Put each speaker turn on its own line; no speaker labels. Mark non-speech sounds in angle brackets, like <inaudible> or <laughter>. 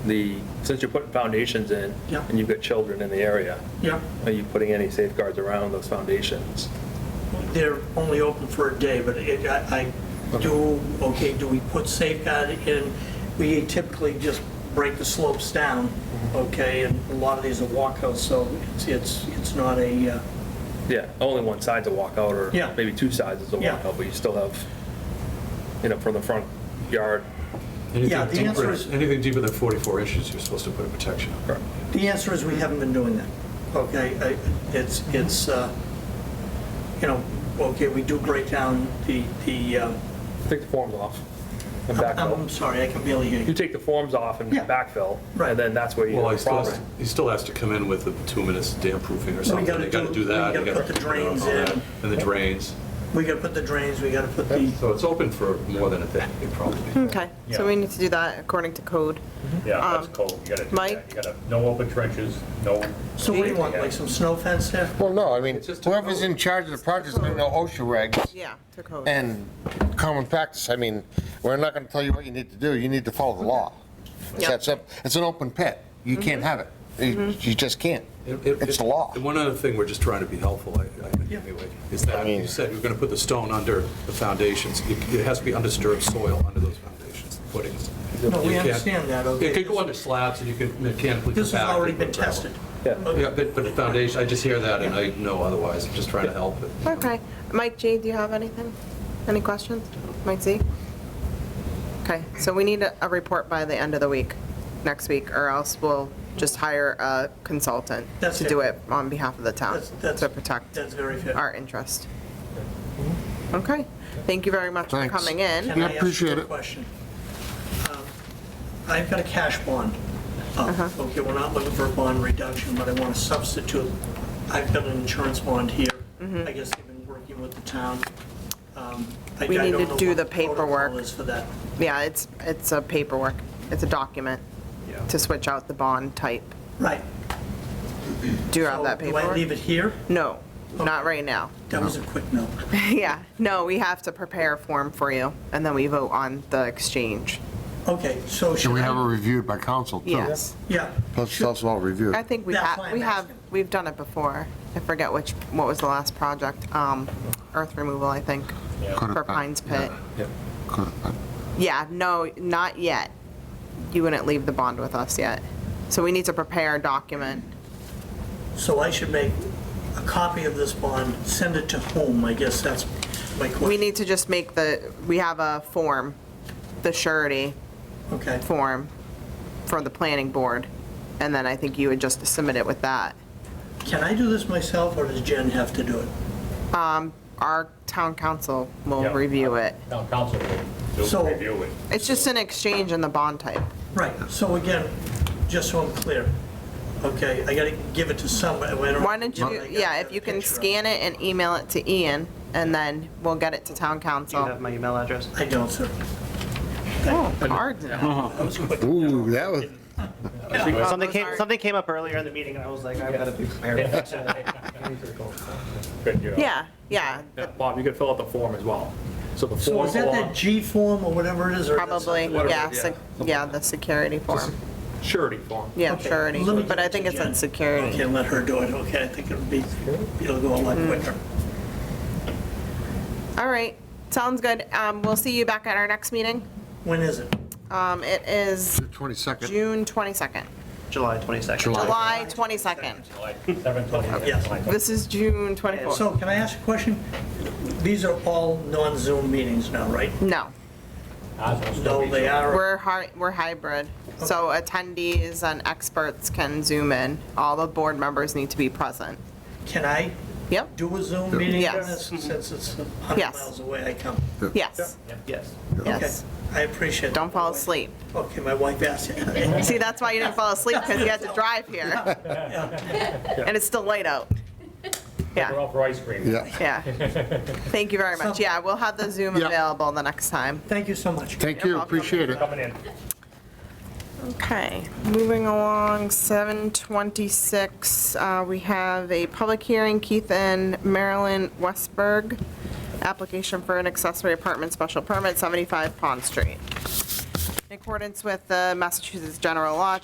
the, since you're putting foundations in,
Yeah.
and you've got children in the area,
Yeah,
are you putting any safeguards around those foundations?
they're only open for a day, but it, I, I do, okay, do we put safeguard in? We typically just break the slopes down, okay, and a lot of these are walkouts, so it's, it's, it's not a, uh,
Yeah, only one side's a walkout, or
Yeah.
maybe two sides is a
Yeah.
walkout, but you still have, you know, from the front yard.
Yeah, the
Anything
answer
deeper,
is-
anything deeper than 44 inches, you're supposed to put a protection on.
Correct.
The answer is we haven't been doing that, okay? I- It's, it's, uh, you know, okay, we do break down the, the, uh,
Take the forms off and
I'm I'm
backfill.
sorry, I can barely hear
You
you.
take the forms off and
Um, Yeah.
backfill,
Right.
and then that's where you
Well, he
have a
still
problem.
has, he still has to come in with the two minutes damp proofing or
So we
something.
gotta
They gotta
do-
do that.
we
they
gotta put the
you know,
drains
all that,
in.
And the drains.
We gotta put the drains, we gotta put the,
So it's open for more than a day, <laughs> probably.
Okay, so we need to do that according to code.
Yeah,
Um,
that's cold, you gotta do that.
Mike?
You gotta, no open trenches, no.
so what do you want, like some snow fence there?
Well, no, I mean,
It's just a
whoever's
code.
in charge of the project's gonna know OSHA regs
Yeah, to code.
and common practice. I mean, we're not gonna tell you what you need to do, you need to follow the law. It's
Yep. Mm-hmm.
that simple. It's an open pit, you can't have it, you you just can't.
It- it-
It's the law.
And one other thing, we're just trying to be helpful, I I think,
Yeah.
anyway, is that
mean-
you said you're gonna put the stone under the foundations. It it has to be undisturbed soil under those foundations, the footings.
No,
You
we
can't-
understand that, okay?
It could go under slabs and you could mechanically.
This has
compact it
already
with
been
gravel.
tested.
Yeah.
Yeah, but, but the foundation, I just hear that and I know otherwise, I'm just trying to help it.
Okay, Mike G, do you have anything? Any questions? Mike Z? Okay, so we need a, a report by the end of the week, next week, or else we'll just hire a consultant
That's
to do
fair.
it on behalf of the town,
That's- that's-
to protect
That's very fair. Mm-hmm.
our interest. Okay, thank you very much for
Thanks.
coming in.
Can I ask you
appreciate
a
it.
question? Um, I've got a cash bond. Uh,
Uh-huh.
Okay, we're not looking for a bond reduction, but I want to substitute. I've got an insurance bond here.
Mm-hmm.
I guess they've been working with the town. Um, I-
We
I
need
don't
to
know
do
what
the
protocol
paperwork.
is for that.
Yeah, it's, it's a paperwork, it's a document to switch out the bond type.
Right.
Do you have that
So Do I leave
paperwork?
it here?
No, not right now. <laughs>
That was a quick no.
Yeah, no, we have to prepare a form for you, and then we vote on the exchange.
Okay, so should
Should we have it
I?
reviewed by council, too?
Yes.
Yeah.
Let's, let's all review.
I think we
That's
have,
why
we
I'm
have,
asking.
we've done it before. I forget which, what was the last project? Um, Earth removal, I think,
Could've
for
been,
Pines Pit.
Could've been.
Yeah, no, not yet. You wouldn't leave the bond with us yet. So we need to prepare a document.
So I should make a copy of this bond, send it to whom? I guess that's my question.
We need to just make the, we have a form, the surety
Okay.
form for the planning board, and then I think you would just submit it with that.
Can I do this myself, or does Jen have to do it?
our town council will
Yeah.
review it.
Town council will
So-
do review it.
It's just an exchange in the bond type.
Right, so again, just so I'm clear, okay, I gotta give it to somebody.
Why don't you, yeah, if you can scan it and email it to Ian, and then we'll get it to town
You have
council.
my email address?
I don't, sir.
Oh, cards now.
Ooh, that was,
Something
those
came,
are-
something came up earlier in the meeting, and I was like, I've got to be prepared.
Good, you know.
Yeah, yeah,
Yeah, Bob, you could fill out the form as well. So the
So
form
is that that
along,
G form or whatever it is? or is that
probably,
something-
yeah,
yeah,
sec- yeah, the security form,
surety form.
yeah,
Okay,
surety,
let me
but
give
I
it to
think it's
Jen.
on security.
Okay, let her do it, okay, I think it'll be, it'll go a lot
Mm.
quicker.
All right, sounds good. Um, we'll see you back at our next meeting.
When is it?
Um, it is
22nd.
June 22nd,
July 22nd.
July.
July 22nd.
Like, seven twenty,
Yes.
like,
This is June 24th.
So can I ask a question? These are all non-Zoom meetings now, right?
No.
ours will still
No,
be
they
Zoom.
are,
We're hi, we're hybrid, so attendees and experts can zoom in. All the board members need to be present.
can I
Yep,
do a Zoom meeting,
Yes. Mm-hmm.
Dennis, since it's 100
Yes.
miles away, I come?
yes,
Yes.
yes.
Okay, I appreciate it.
Don't fall asleep.
Okay, my wife asked. <laughs>
See, that's why you didn't fall asleep, because you had to drive here. And it's still light out.
We're
Yeah,
all for ice cream.
Yeah.
yeah. Thank you very much. Yeah, we'll have the Zoom
Yeah.
available the next time.
Thank you so much.
Thank you,
welcome.
appreciate it.
Coming in.
Okay, moving along, 7:26, uh, we have a public hearing, Keith and Marilyn Westberg, application for an accessory apartment special permit, 75 Pond Street. In accordance with the Massachusetts General Law,